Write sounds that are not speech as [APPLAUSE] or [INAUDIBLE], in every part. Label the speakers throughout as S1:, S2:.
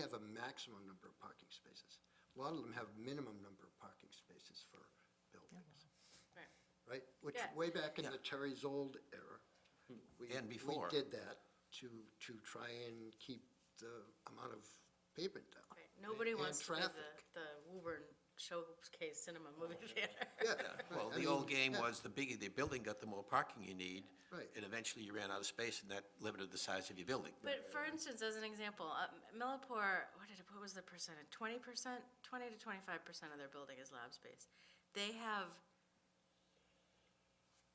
S1: have a maximum number of parking spaces. A lot of them have minimum number of parking spaces for buildings.
S2: Right.
S1: Right? Which
S2: Yeah.
S1: way back in the
S3: Yeah. Hmm.
S1: Terry Zold era. we-
S3: And before.
S1: We did that to, to try and keep the amount of pavement down.
S2: [LAUGHS] Right, nobody
S1: And
S2: wants to do the,
S1: traffic. Oh,
S2: the Woburn Showcase Cinema Movie Theater.
S1: Yeah.
S3: Well,
S1: right. I
S3: the old
S1: mean,
S3: game
S1: yeah,
S3: was the bigger the building got, the more parking you need.
S1: Right.
S3: And eventually you ran out of space and that limited the size of your building.
S2: But for instance, as an example, um, Millipore, what did, what was the percentage? Twenty percent, twenty to twenty-five percent of their building is lab space. They have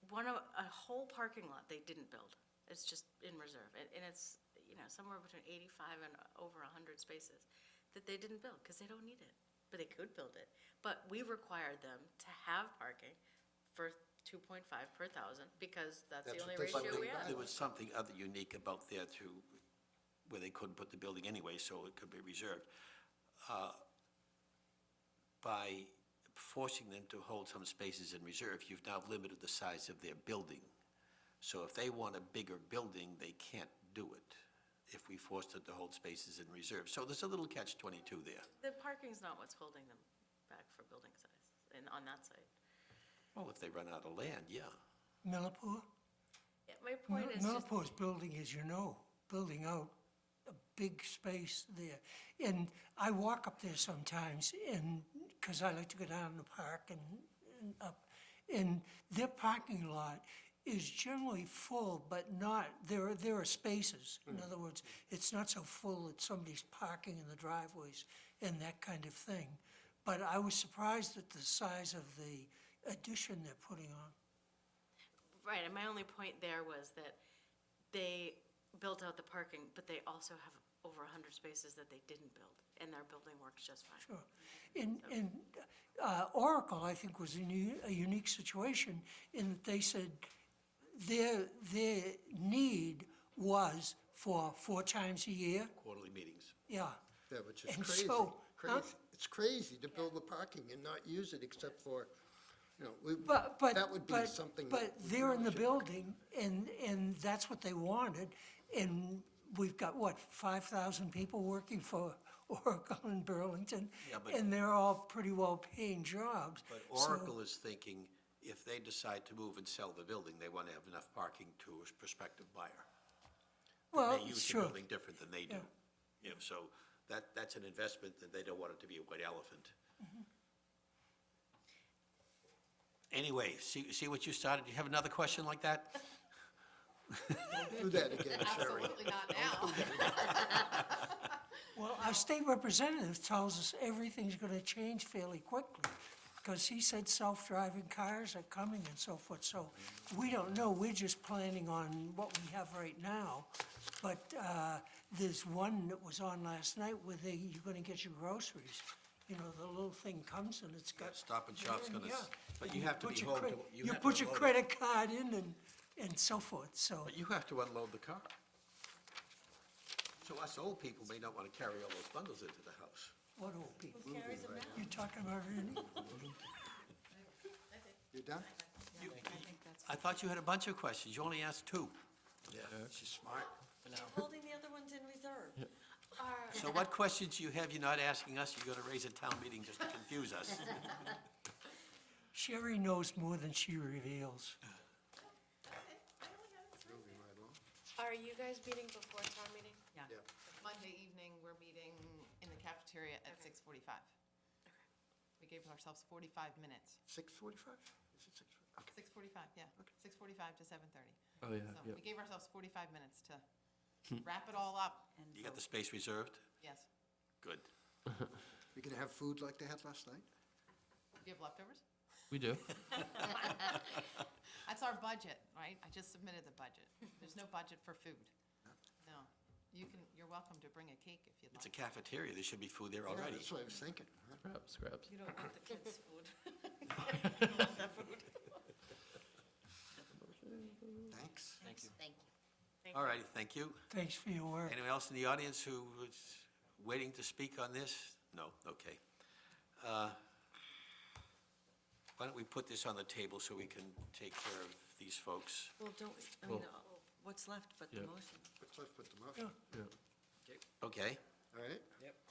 S2: one of, a whole parking lot they didn't build. It's just in reserve, and, and it's, you know, somewhere between eighty-five and over a hundred spaces that they didn't build, because they don't need it, but they could build it. But we required them to have parking for two point five per thousand, because that's the
S1: That's
S2: only
S1: what they
S3: But
S2: ratio
S1: built in.
S2: we have.
S3: there was something other unique about there too, where they couldn't put the building anyway, so it could be reserved. Uh, By forcing them to hold some spaces in reserve, you've now limited the size of their building. So if they want a bigger building, they can't do it if we force them to hold spaces in reserve. So there's a little catch twenty-two there.
S2: The parking's not what's holding them back for building size, and on that site.
S3: Well, if they run out of land, yeah.
S4: Millipore?
S2: Yeah, My point is just,
S4: Millipore's building, as you know, building out a big space there. And I walk up there sometimes and, because I like to go down in the park and, and up. And their parking lot is generally full, but not, there are, there are spaces. In
S2: Mm.
S4: other words, it's not so full that somebody's parking in the driveways and that kind of thing. But I was surprised at the size of the addition they're putting on.
S2: right, and my only point there was that they built out the parking, but they also have over 100 spaces that they didn't build, and their building works just fine.
S4: Sure. And, and uh, Oracle, I think, was in u- a unique situation in that they said their, their need was for four times a year,
S3: Quarterly meetings.
S4: yeah.
S1: Yeah, which is
S4: And
S1: crazy,
S4: so, huh?
S1: crazy. It's crazy to build the parking and not use it except for, you know, we,
S4: But, but.
S1: that would be
S4: but-
S1: something.
S4: But
S1: that we
S4: they're in
S1: really
S4: the
S1: should-
S4: building, and, and that's what they wanted. And we've got, what, 5,000 people working for Oracle in Burlington?
S3: Yeah, but-
S4: And they're all pretty well-paying jobs.
S3: But
S4: So-
S3: Oracle is thinking, if they decide to move and sell the building, they want to have enough parking to a prospective buyer.
S4: Well,
S3: They use the
S4: sure.
S3: building different than they do. You know, so that, that's an investment, and they don't want it to be a white elephant.
S4: Mm-hmm.
S3: Anyway, see, see what you started? You have another question like
S4: [LAUGHS]
S3: that?
S1: Do that again, Sherry.
S5: Absolutely not now.
S4: Well, our state representative tells us everything's going to change fairly quickly, because he said self-driving cars are coming and so forth, so we don't know, we're just planning on what we have right now. But uh, there's one that was on last night where they, you're going to get your groceries, you know, the little thing comes and it's got.
S3: Stop and Shop's gonna s-
S4: Yeah.
S3: but you have to
S4: Put
S3: be
S4: your
S3: home
S4: cre-
S3: to- you
S4: You
S3: have to
S4: put your
S3: unload it.
S4: credit card in and, and so forth, so.
S3: But you have to unload the car. So us old people may not want to carry all those bundles into the house.
S4: What old people? You're talking about Ernie?
S1: You done?
S3: I thought you had a bunch of questions. You only asked two.
S1: Yeah, she's smart.
S6: Holding the other ones in reserve.
S3: So what questions you have you're not asking us, you're going to raise at town meeting just to confuse
S6: [LAUGHS]
S3: us?
S4: Sherry knows more than she reveals.
S1: Moving right along.
S7: Are you guys meeting before town meeting?
S1: Yeah.
S5: Monday evening, we're meeting in the cafeteria at six forty-five. We gave ourselves forty-five minutes,
S1: Six forty-five? Is it six? Okay.
S5: six forty-five, yeah, six forty-five to seven thirty.
S8: Oh, yeah,
S5: So
S8: yeah.
S5: we gave ourselves forty-five minutes to wrap it all up,
S3: You got the space reserved?
S5: yes.
S3: Good.
S1: We can have food like they had last night?
S5: Do you have leftovers?
S8: We do.
S5: That's our budget, right? I just submitted the budget. There's no budget for food. No. You can, you're welcome to bring a cake if you'd
S3: It's a
S5: like.
S3: cafeteria, there should be food there
S1: Yeah,
S3: already.
S1: That's what I was thinking. huh?
S8: Scraps, scraps.
S6: You don't want the kids'
S2: [LAUGHS]
S6: food.
S1: Thanks. Thank you.
S3: All righty, thank you.
S4: Thanks for your work.
S3: Anyone else in the audience who was waiting to speak on this? No, okay. Uh, Why don't we put this on the table so we can take care of these folks?
S6: Well, don't, I mean,
S8: Well-
S6: what's left but
S8: Yeah.
S6: the motion?
S1: Let's put the motion.
S8: Yeah.
S3: Okay,
S1: all right?